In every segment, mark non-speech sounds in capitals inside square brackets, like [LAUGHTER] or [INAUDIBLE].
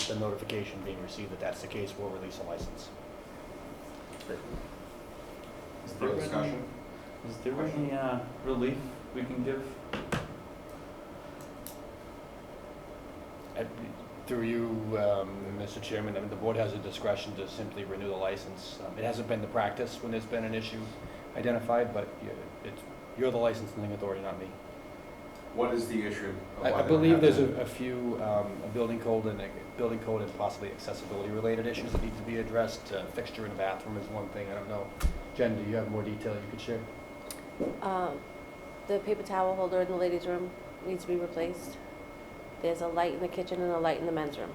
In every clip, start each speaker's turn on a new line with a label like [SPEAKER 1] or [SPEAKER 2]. [SPEAKER 1] the notification being received that that's the case, we'll release a license.
[SPEAKER 2] Is there
[SPEAKER 3] Further
[SPEAKER 2] any,
[SPEAKER 3] discussion?
[SPEAKER 2] is there any, uh, relief we can give?
[SPEAKER 1] And Uh, Through you, um, Mr. Chairman, I mean, the board has the discretion to simply renew the license. Um, It hasn't been the practice when there's been an issue identified, but you- it's, you're the licensing authority, not me.
[SPEAKER 3] What is the issue? of
[SPEAKER 1] I I
[SPEAKER 3] why they Oh, don't
[SPEAKER 1] believe
[SPEAKER 3] have
[SPEAKER 1] there's a
[SPEAKER 3] that?
[SPEAKER 1] a few, um, a building code and, a- building code and possibly accessibility-related issues that need to be addressed. Uh, Fixture in a bathroom is one thing, I don't know. Jen, do you have more detail you could share?
[SPEAKER 4] Um, The paper towel holder in the ladies' room needs to be replaced. There's a light in the kitchen and a light in the men's room.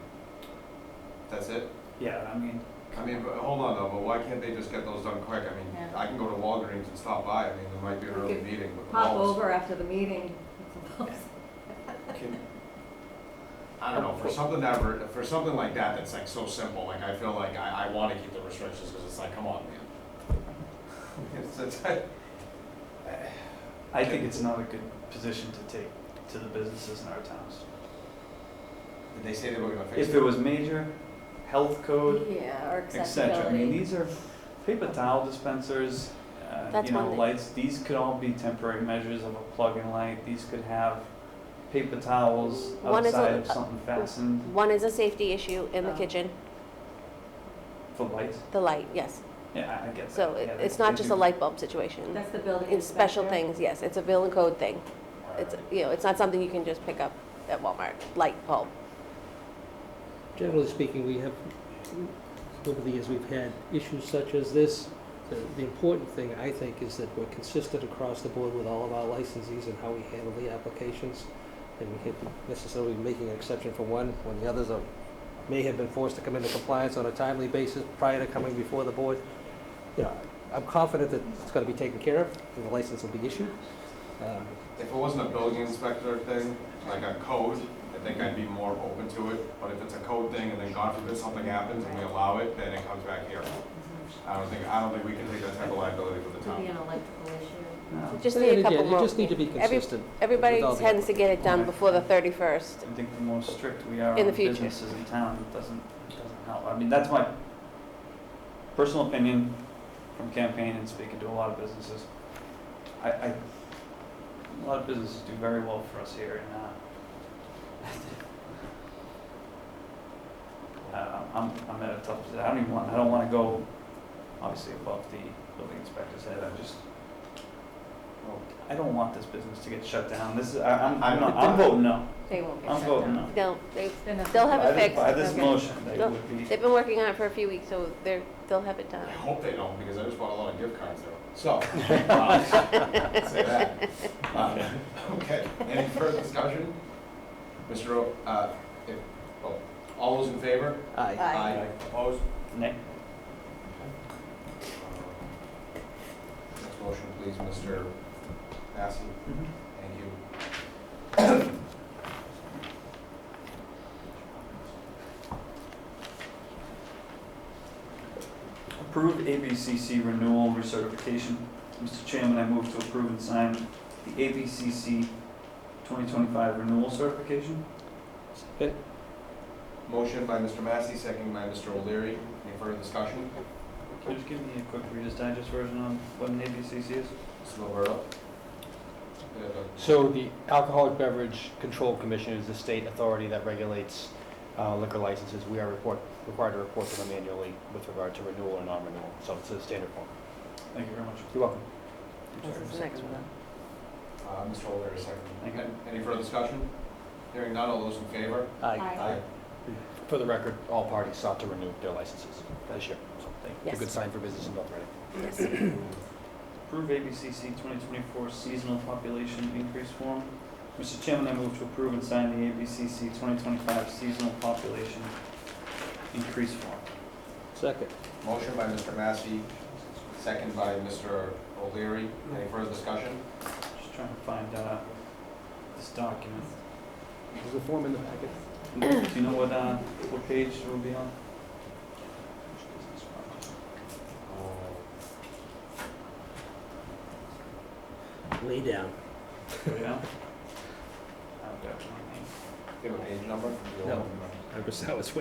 [SPEAKER 3] That's it?
[SPEAKER 2] Yeah, I mean,
[SPEAKER 3] I mean, but hold on though, but why can't they just get those done quick? I mean,
[SPEAKER 5] Yeah.
[SPEAKER 3] I can go to Walgreens and stop by, I mean, there might be an
[SPEAKER 5] We
[SPEAKER 3] early
[SPEAKER 5] could
[SPEAKER 3] meeting with the
[SPEAKER 5] Pop
[SPEAKER 3] walls.
[SPEAKER 5] over after the meeting. [LAUGHS]
[SPEAKER 3] Can- I don't know, for something that, re- for something like that, that's like so simple, like I feel like I, I wanna keep the restrictions, cause it's like, come on, man. [LAUGHS] It's, it's, [LAUGHS] I,
[SPEAKER 2] I think it's not a good position to take to the businesses in our towns.
[SPEAKER 3] did they say they were gonna fix
[SPEAKER 2] If
[SPEAKER 3] it?
[SPEAKER 2] it was major, health code,
[SPEAKER 5] Yeah, or
[SPEAKER 2] et cetera, I
[SPEAKER 5] accessibility.
[SPEAKER 2] mean, these are paper towel dispensers, uh,
[SPEAKER 4] That's
[SPEAKER 2] you know,
[SPEAKER 4] one thing.
[SPEAKER 2] lights, these could all be temporary measures of a plug and light, these could have paper towels
[SPEAKER 4] One is a-
[SPEAKER 2] outside of something fastened
[SPEAKER 4] One is a safety issue in the
[SPEAKER 5] Oh.
[SPEAKER 4] kitchen,
[SPEAKER 2] for lights,
[SPEAKER 4] the light, yes.
[SPEAKER 2] yeah, I I get that.
[SPEAKER 4] So it-
[SPEAKER 2] Yeah, they-
[SPEAKER 4] it's not
[SPEAKER 2] they
[SPEAKER 4] just
[SPEAKER 2] do-
[SPEAKER 4] a light bulb situation.
[SPEAKER 5] That's the building
[SPEAKER 4] It's special
[SPEAKER 5] inspector.
[SPEAKER 4] things, yes, it's a building code thing. It's,
[SPEAKER 3] Alright.
[SPEAKER 4] you know, it's not something you can just pick up at Walmart, light bulb.
[SPEAKER 6] Generally speaking, we have, over the years, we've had issues such as this. The, the important thing, I think, is that we're consistent across the board with all of our licensees and how we handle the applications. And we can't be necessarily making an exception for one when the others are, may have been forced to come into compliance on a timely basis prior to coming before the board. You know, I'm confident that it's gonna be taken care of and the license will be issued. Um,
[SPEAKER 3] If it wasn't a building inspector thing, like a code, I think I'd be more open to it, but if it's a code thing and then God forbid something happens and we allow it, then it comes back here. I don't think, I don't think we can take that type of liability for the
[SPEAKER 5] Mm-hmm. Could be
[SPEAKER 3] town.
[SPEAKER 5] an electrical issue.
[SPEAKER 2] No.
[SPEAKER 4] Just
[SPEAKER 6] but
[SPEAKER 4] need a
[SPEAKER 6] again,
[SPEAKER 4] couple more.
[SPEAKER 6] You just need to be
[SPEAKER 4] Every-
[SPEAKER 6] consistent.
[SPEAKER 4] Everybody
[SPEAKER 6] with all the
[SPEAKER 4] tends to get it done
[SPEAKER 2] Alright.
[SPEAKER 4] before the 31st.
[SPEAKER 2] I think the more strict we are
[SPEAKER 4] In the
[SPEAKER 2] on
[SPEAKER 4] future.
[SPEAKER 2] businesses in town, it doesn't, it doesn't help. I mean, that's my personal opinion from campaign and speaking to a lot of businesses. I, I, a lot of businesses do very well for us here and, uh, [LAUGHS] I- uh, I'm, I'm at a tough, posi- I don't even want, I don't wanna go obviously above the building inspector's head. I just, I don't want this business to get shut down. This is, I, I'm, I'm not, I'm voting no.
[SPEAKER 5] They won't get
[SPEAKER 2] I'm
[SPEAKER 5] shut
[SPEAKER 2] voting
[SPEAKER 5] down.
[SPEAKER 2] no.
[SPEAKER 4] No, they,
[SPEAKER 5] They're
[SPEAKER 4] They'll
[SPEAKER 5] not-
[SPEAKER 4] have it
[SPEAKER 2] By this- By
[SPEAKER 4] fixed.
[SPEAKER 2] this
[SPEAKER 4] Okay.
[SPEAKER 2] motion, they
[SPEAKER 4] No,
[SPEAKER 2] would be.
[SPEAKER 4] they've been working on it for a few weeks, so they're, they'll have it done.
[SPEAKER 3] I hope they don't, because I just bought a lot of gift cards though. So. um, Say that. Um, Okay, any further discussion? Mr. O, uh, if, oh, all those in favor?
[SPEAKER 6] Aye.
[SPEAKER 5] Aye.
[SPEAKER 3] Opposed?
[SPEAKER 2] Nick?
[SPEAKER 3] Next motion, please, Mr. Massey.
[SPEAKER 2] Mm-hmm.
[SPEAKER 3] Thank you.
[SPEAKER 2] Approve ABCC renewal recertification. Mr. Chairman, I move to approve and sign the ABCC 2025 renewal certification.
[SPEAKER 6] Good.
[SPEAKER 3] Motion by Mr. Massey, second by Mr. O'Leary. Any further discussion?
[SPEAKER 2] Can you just give me a quick Reader's Digest version on what an ABCC is?
[SPEAKER 3] Mr. Roberto? Yeah, the-
[SPEAKER 1] So the Alcoholic Beverage Control Commission is the state authority that regulates uh, liquor licenses. We are report, required to report to them annually with regard to renewal or non-renewal, so it's a standard form.
[SPEAKER 2] Thank you very much.
[SPEAKER 1] You're welcome.
[SPEAKER 4] This is the next one.
[SPEAKER 3] Uh, Mr. O'Leary, second.
[SPEAKER 2] Thank you.
[SPEAKER 3] Any- Any further discussion? Hearing none, all those in favor?
[SPEAKER 6] Aye.
[SPEAKER 5] Aye.
[SPEAKER 1] For the record, all parties sought to renew their licenses this year. So
[SPEAKER 2] Thank you.
[SPEAKER 1] It's a good
[SPEAKER 4] Yes.
[SPEAKER 1] sign for business in North Reading.
[SPEAKER 4] Yes.
[SPEAKER 2] Approve ABCC 2024 seasonal population increase form. Mr. Chairman, I move to approve and sign the ABCC 2025 seasonal population increase form.
[SPEAKER 6] Second.
[SPEAKER 3] Motion by Mr. Massey, second by Mr. O'Leary. Any further discussion?
[SPEAKER 2] Just trying to find uh, this document.
[SPEAKER 1] There's a form in the packet.
[SPEAKER 2] Do you know what, uh, what page it will be on?
[SPEAKER 3] Uh,
[SPEAKER 6] Way down.
[SPEAKER 2] Go down. I've got one.
[SPEAKER 3] Do you have a page number?
[SPEAKER 6] No. I was, I was